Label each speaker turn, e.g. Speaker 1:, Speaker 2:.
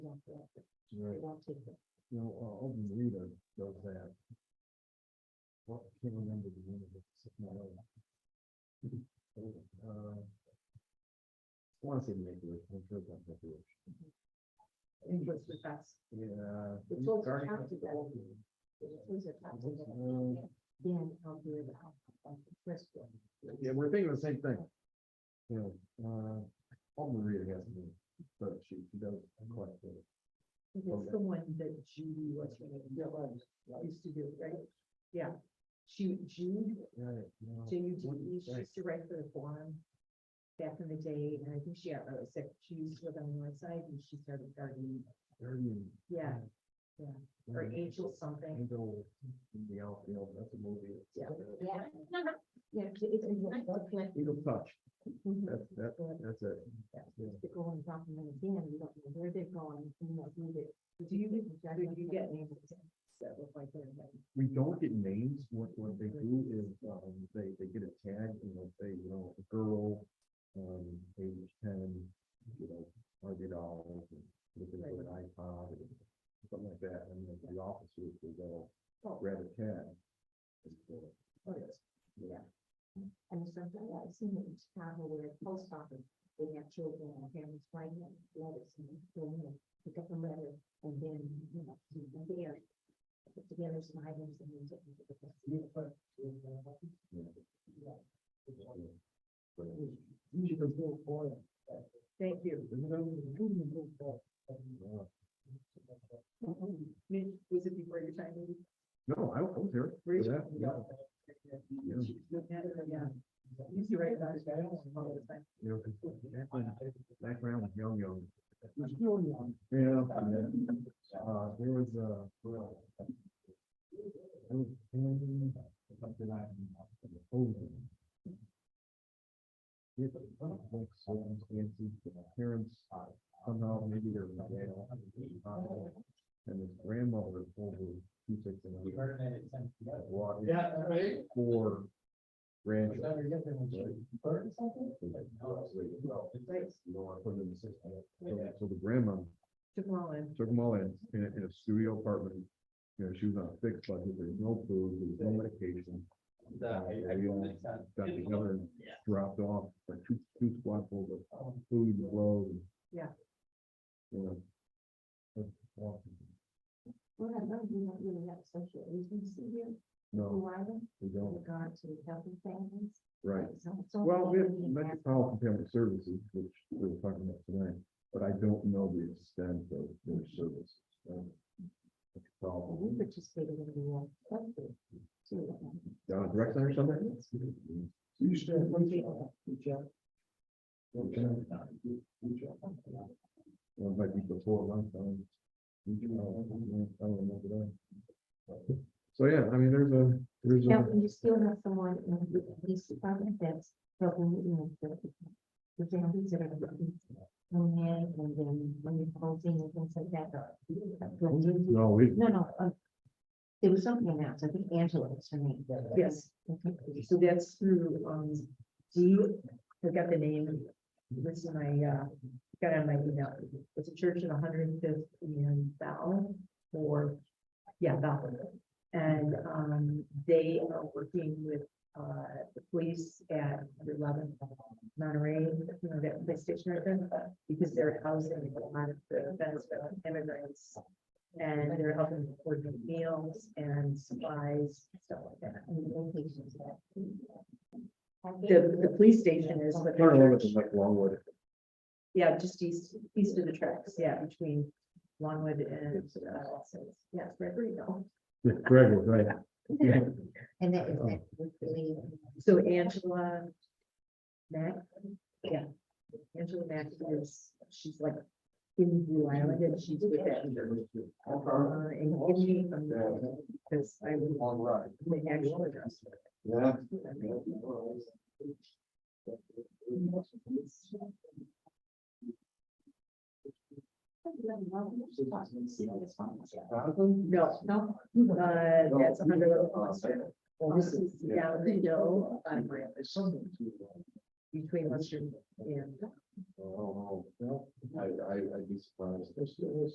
Speaker 1: Right.
Speaker 2: um,
Speaker 1: You know, uh, Open Reader does that. Well, I can't remember the name of it. it's not on. Uh, I want to say Makewish, I'm sure that's Makewish.
Speaker 2: Interest with us.
Speaker 1: Yeah.
Speaker 2: It's all counted that way. Those are tough to get.
Speaker 1: Uh,
Speaker 2: Dan, I'll do it. I'll- I'll press it.
Speaker 1: Yeah, we're thinking the same thing. Yeah, uh, Open Reader has to be, but she, she does quite a bit.
Speaker 2: It's the one that Judy was, used to do, right? Yeah. She, Jude,
Speaker 1: Right, you know,
Speaker 2: J U D
Speaker 1: wouldn't-
Speaker 2: E, she
Speaker 1: right.
Speaker 2: used to write for the forum back in the day, and I think she, had a sec- she used to live on the north side, and she started gardening,
Speaker 1: Guardian,
Speaker 2: yeah, or
Speaker 1: Guardian.
Speaker 2: Angel something.
Speaker 1: Angel in the outfield, that's a movie.
Speaker 2: Yeah.
Speaker 1: Uh,
Speaker 2: Yeah. Yeah, it's, it's.
Speaker 1: Eagle Touch,
Speaker 2: Mhm.
Speaker 1: that's, that, that's it.
Speaker 2: Yeah.
Speaker 1: Yeah.
Speaker 2: to go and drop them in the bin, we don't know where they're going, you know, who they. Do you, do you get names? That look like they're like.
Speaker 1: We don't get names, what, what they do is, um, they, they get a tag, and they'll say, you know, a girl, um, age ten, you know, hundred dollars, and looking for an iPod, or something like that, and then the officers will go
Speaker 2: Oh,
Speaker 1: grab a tag. and go, Oh, yes.
Speaker 2: And sometimes I've seen it in Chicago where a post office, they have children and parents writing them letters and they go in and pick up a letter and then, you know, do them there. Put together some items and use it.
Speaker 1: Yeah.
Speaker 2: Yeah.
Speaker 1: Yeah. But Usually those little boys.
Speaker 2: Thank you.
Speaker 1: Isn't that what they do? Uh,
Speaker 2: Was it before your time? maybe?
Speaker 1: No, I I was there. for
Speaker 2: Really?
Speaker 1: that, yeah. Yeah.
Speaker 2: Yeah. You used to write letters, but I don't remember the time.
Speaker 1: you know, 'cause back when- back when I was young, young. Yeah. and then, Uh, there was a, well. I was in something I. Oldham. It was like circumstances, that my parents somehow maybe they're in jail. And his grandmother pulled her two six and a half. Walked in
Speaker 3: Yeah, uh, right.
Speaker 1: for
Speaker 3: Was
Speaker 1: grandchildren.
Speaker 3: that a different one? Bird something?
Speaker 1: So so the grandma
Speaker 2: To call in.
Speaker 1: took them all in, in a, in a studio apartment. You know, she was on a fixed budget, there was no food, there was no medication.
Speaker 3: Yeah, uh, I- I-
Speaker 1: We all got together and
Speaker 3: Yeah.
Speaker 1: dropped off, like two, two squadfuls of food and clothes. and-
Speaker 2: Yeah.
Speaker 1: You know. Well,
Speaker 2: Well, I know you don't really have social agency here,
Speaker 1: No,
Speaker 2: who are they,
Speaker 1: we
Speaker 2: in
Speaker 1: don't,
Speaker 2: regard to helping families?
Speaker 1: right.
Speaker 2: So- so
Speaker 1: Well, we have
Speaker 2: maybe in that-
Speaker 1: Metropolitan Family Services, which we were talking about tonight, but I don't know the extent of their services. so that's a
Speaker 2: Well, We
Speaker 1: problem.
Speaker 2: participated in the, uh, club group, too.
Speaker 1: Down at Rec Center or something? You used to. Well, it might be before lunchtime. I don't remember that. So, yeah, I mean, there's a, there's
Speaker 2: Now,
Speaker 1: a,
Speaker 2: you still have someone in the police department that's helping you know, the, the families that are looking in there, and then when you're closing and things like that. uh, No,
Speaker 1: no, we,
Speaker 2: no, uh, there was something announced, I think Angela was her name. Yes, so that's through, um, do you, I forgot the name, this is my, uh, got on my email. It's a church in hundred and fifth and Bell, or, yeah, Bell. And, um, they are working with, uh, the police at eleven uh, Monterey, you know, that police station, right there, because they're housing a lot of the events for immigrants. And they're helping to coordinate meals and supplies, stuff like that. and locations, yeah. The, the police station is. but the
Speaker 1: part of
Speaker 2: church-
Speaker 1: it is like Longwood,
Speaker 2: yeah, just east, east of the tracks, yeah, between Longwood and, uh, yeah, Gregoryville.
Speaker 1: Yeah, Gregwood, right? Yeah.
Speaker 2: And that
Speaker 1: is that
Speaker 2: So Angela Mack, yeah, Angela Mack is, she's like in Blue Island and she's with that. Uh, and give me, because I would
Speaker 1: Long ride.
Speaker 2: would actually address. her.
Speaker 1: Yeah.
Speaker 2: No, no, uh, that's a hundred. Well, this is down the hill on Branch between Western and
Speaker 1: Oh, no, I, I, I'd be surprised.